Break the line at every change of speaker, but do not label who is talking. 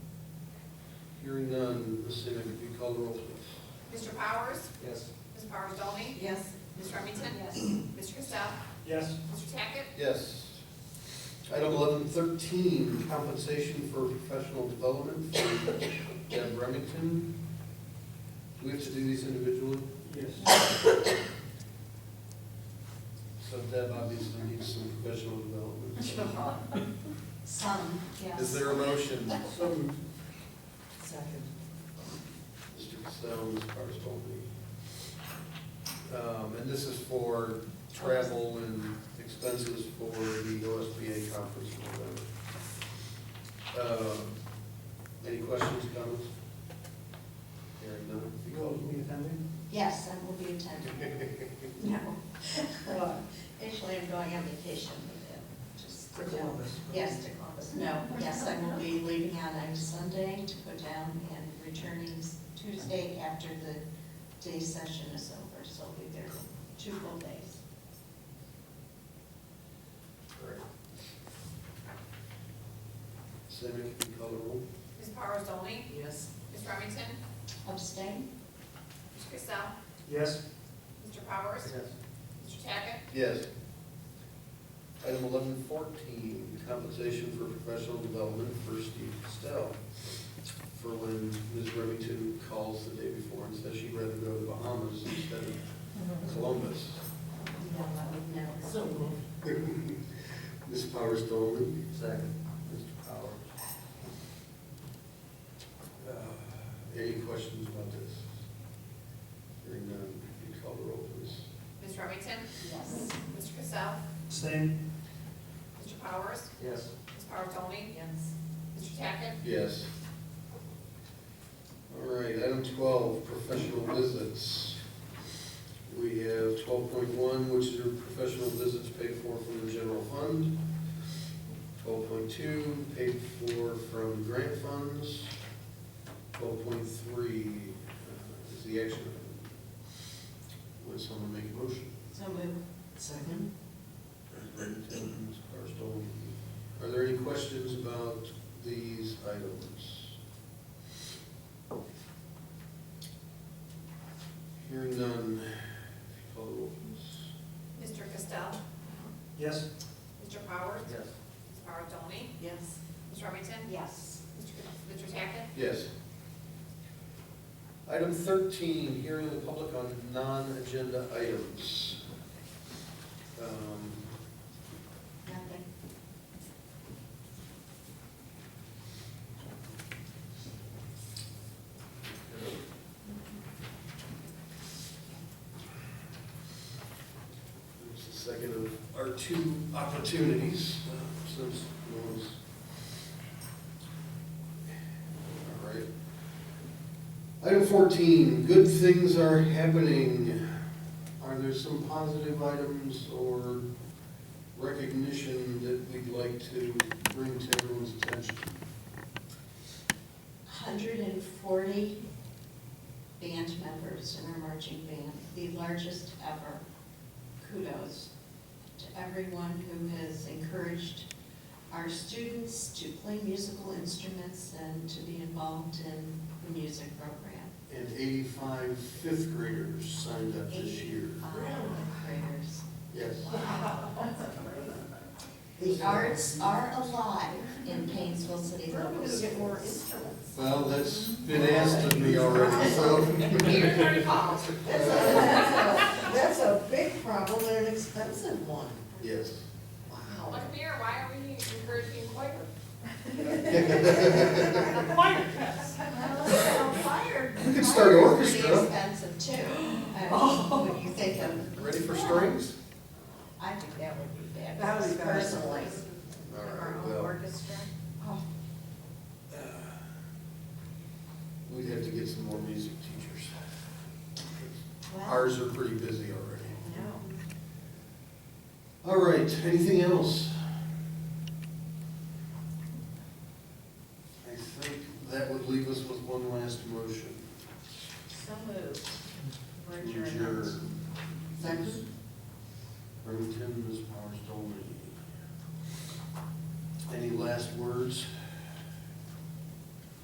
Hearing none, Ms. Senior, could you call the roll, please?
Mr. Powers?
Yes.
Ms. Powers Dolly?
Yes.
Ms. Remington?
Yes.
Mr. Cassell?
Yes.
Mr. Tackett?
Yes. Item eleven thirteen, compensation for professional development for Deb Remington. Do we have to do these individually?
Yes.
So Deb obviously needs some professional development.
Some, yes.
Is there a motion?
So moved.
Second.
Mr. Costello, Ms. Powers Um, and this is for travel and expenses for the OSBA conference in November. Um, Any questions, comments? Hearing none.
You all will be attending?
Yes, I will be attending. No. Well, Actually, I'm going on vacation with them, just.
To Columbus.
Yes, to Columbus. No, yes, I will be leaving on Sunday to go down and returning Tuesday after the day session is over, so I'll be there two full days.
All right. Sammy, can you call the roll?
Ms. Powers Dolly?
Yes.
Ms. Remington?
Abstain?
Mr. Cassell?
Yes.
Mr. Powers? Mr. Tackett?
Yes. Item eleven fourteen, compensation for professional development for Steve Costello. For when Ms. Remington calls the day before and says she'd rather go to the Bahamas instead of Columbus.
No, I would never.
So moved.
Ms. Powers Dolman. Second. Mr. Powers. Uh, Any questions about this? Hearing none, you call the roll, please.
Ms. Remington?
Yes.
Mr. Cassell?
Same.
Mr. Powers?
Yes.
Ms. Powers Dolly?
Yes.
Mr. Tackett?
Yes. All right, item twelve, professional visits. We have twelve point one, which are professional visits paid for from the general fund. Twelve point two, paid for from grant funds. Twelve point three uh, is the action item. Would someone make a motion?
So move. Second?
Ms. Barstow, Are there any questions about these items? Hearing none, if you call the roll, please.
Mr. Cassell?
Yes.
Mr. Powers?
Yes.
Ms. Powers Dolly?
Yes.
Ms. Remington?
Yes.
Mr. Mr. Tackett?
Yes. Item thirteen, hearing the public on non-agenda items. Um,
Nothing.
There's the second of our two opportunities, uh, since no one's. All right. Item fourteen, good things are happening. Are there some positive items or recognition that we'd like to bring to everyone's attention?
140 band members in our marching band, the largest ever. Kudos to everyone who has encouraged our students to play musical instruments and to be involved in the music program.
And 85 fifth graders signed up this year.
Eighty-five Graders.
Yes.
The arts are alive in Painesville City Local Schools.
instruments.
Well, that's been asked of me already,
Here,
so.
thirty calls.
That's a, that's a, that's a big problem and an expensive one.
Yes.
Wow.
Look here, why are we encouraging choir?
You could start an
Pretty
orchestra.
expensive too. I mean, When you think of
Ready for strings?
I think that would be bad.
That would be better.
Personally.
All right,
Our own
well,
orchestra.
Oh,
We'd have to get some more music teachers.
well,
Ours are pretty busy already.
no.
All right, anything else? I think that would leave us with one last motion.
So moved. We're
Would
adjourned.
your-
Second?
Remington, Ms. Powers, Dolman. Any last words?